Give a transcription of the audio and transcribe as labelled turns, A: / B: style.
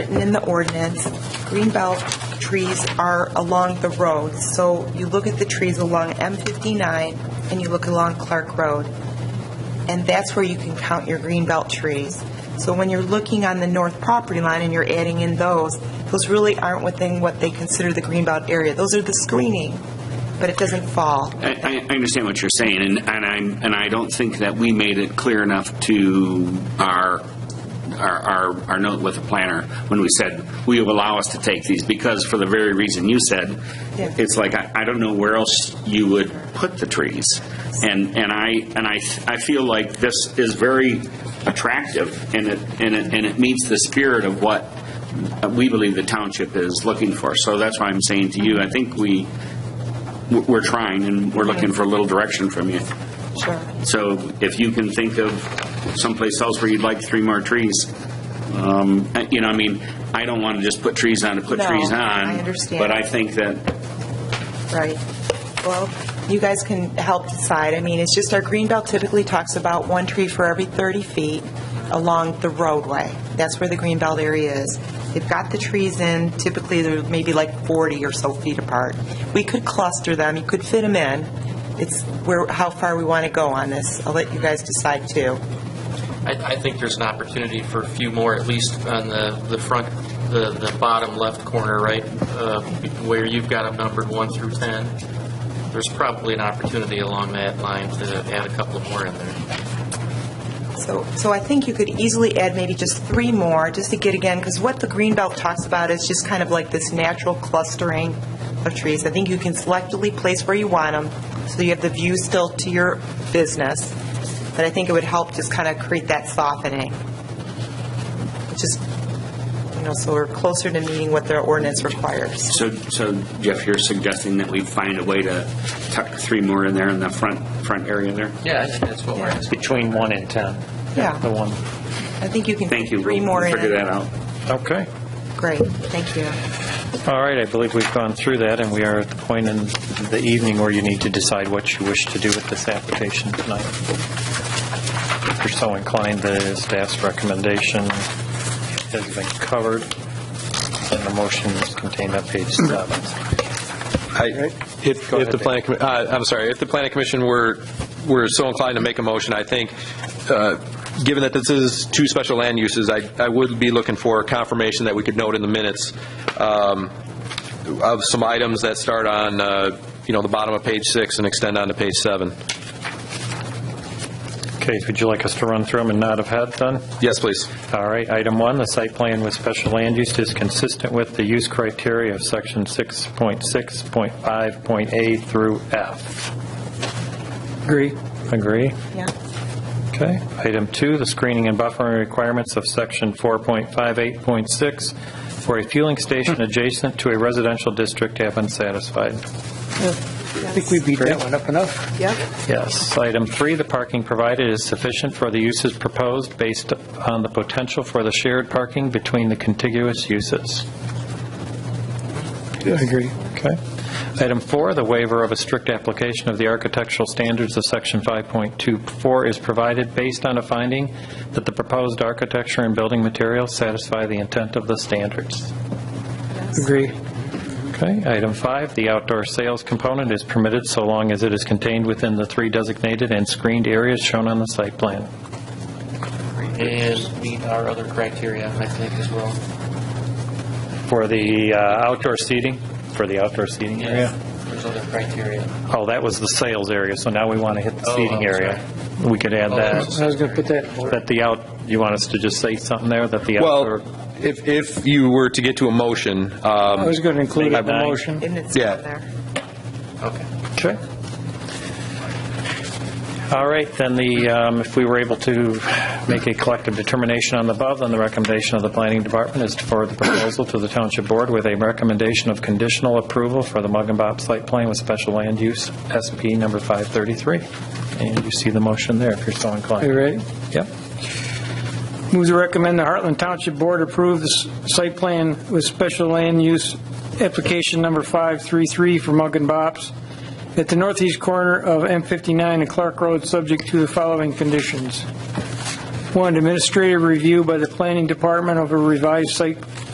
A: written in the ordinance, greenbelt trees are along the road. So you look at the trees along M-59 and you look along Clark Road, and that's where you can count your greenbelt trees. So when you're looking on the north property line and you're adding in those, those really aren't within what they consider the greenbelt area. Those are the screening, but it doesn't fall.
B: I, I I understand what you're saying, and, and I'm, and I don't think that we made it clear enough to our, our, our, our note with the planner when we said, will you allow us to take these? Because for the very reason you said,
A: Yeah.
B: it's like, I, I don't know where else you would put the trees. And, and I, and I, I feel like this is very attractive, and it, and it, and it meets the spirit of what we believe the township is looking for. So that's why I'm saying to you, I think we, we're- we're trying, and we're looking for a little direction from you.
A: Sure.
B: So if you can think of someplace else where you'd like three more trees, um, uh, you know, I mean, I don't want to just put trees on to put
A: No,
B: trees on.
A: I understand.
B: But I think that,
A: Right. Well, you guys can help decide. I mean, it's just our green belt typically talks about one tree for every 30 feet along the roadway. That's where the green belt area is. They've got the trees in, typically they're maybe like 40 or so feet apart. We could cluster them, you could fit them in. It's where, how far we want to go on this. I'll let you guys decide too.
C: I, I think there's an opportunity for a few more, at least on the, the front, the, the bottom left corner, right? uh, Where you've got them numbered one through 10. There's probably an opportunity along that line to add a couple more in there.
A: So, so I think you could easily add maybe just three more, just to get again, because what the green belt talks about is just kind of like this natural clustering of trees. I think you can selectively place where you want them, so you have the view still to your business, but I think it would help just kind of create that softening. Just, you know, so we're closer to meeting what the ordinance requires.
B: so so Jeff, you're suggesting that we find a way to tuck three more in there in the front, front area there?
C: Yeah, I think that's what we're asking.
D: Between 1 and 10.
A: Yeah.
D: The one.
A: I think you can fit
B: Thank you.
A: three
B: We'll
A: more in.
B: Figure that out.
D: Okay.
A: Great, thank you.
D: All right, I believe we've gone through that, and we are at the point in the evening where you need to decide what you wish to do with this application tonight. If you're so inclined, the staff's recommendation has been covered, and the motion is contained on page seven.
E: I- If, if the planning, commi- uh, I'm sorry, if the planning commission were, were so inclined to make a motion, I think, uh, given that this is two special land uses, I, I would be looking for confirmation that we could note in the minutes um, of some items that start on, uh, you know, the bottom of page six and extend on to page seven.
D: Kate, would you like us to run through them and nod of head, then?
E: Yes, please.
D: All right, item one, the site plan with special land use is consistent with the use criteria of section 6.6.5.A through F. Agree. Agree?
A: Yeah.
D: Okay. Item two, the screening and buffering requirements of section 4.58.6 for a fueling station adjacent to a residential district have been satisfied.
F: I think we beat that one up enough.
A: Yep.
D: Yes. Item three, the parking provided is sufficient for the uses proposed based on the potential for the shared parking between the contiguous uses.
F: I agree.
D: Okay. Item four, the waiver of a strict application of the architectural standards of Section 5.24 is provided based on a finding that the proposed architecture and building materials satisfy the intent of the standards.
F: Agree.
D: Okay. Item five, the outdoor sales component is permitted so long as it is contained within the three designated and screened areas shown on the site plan.
C: And meet our other criteria, I think, as well.
D: For the uh, outdoor seating, for the outdoor seating area?
C: There's other criteria.
D: Oh, that was the sales area, so now we want to hit the
C: Oh,
D: seating
C: I'm
D: area. We could add
C: Oh,
D: that.
C: that's-
F: I was going to put that in order.
D: That the out, you want us to just say something there, that the outdoor?
E: Well, if, if you were to get to a motion,
F: I
E: um,
F: was going to include it in the
D: Nine.
F: motion.
A: And it's
E: Yeah.
A: down there.
C: Okay.
D: Okay. All right, then the, um, if we were able to make a collective determination on the above, then the recommendation of the planning department is to forward the proposal to the township board with a recommendation of conditional approval for the Mug and Bob site plan with special land use, SP number 533. And you see the motion there if you're so
F: Are you
D: inclined.
F: ready?
D: Yep.
F: Move to recommend the Heartland Township Board approve the s- site plan with special land use application number 533 for Mug and Bops at the northeast corner of M59 and Clark Road, subject to the following conditions. One, administrative review by the planning department of a revised site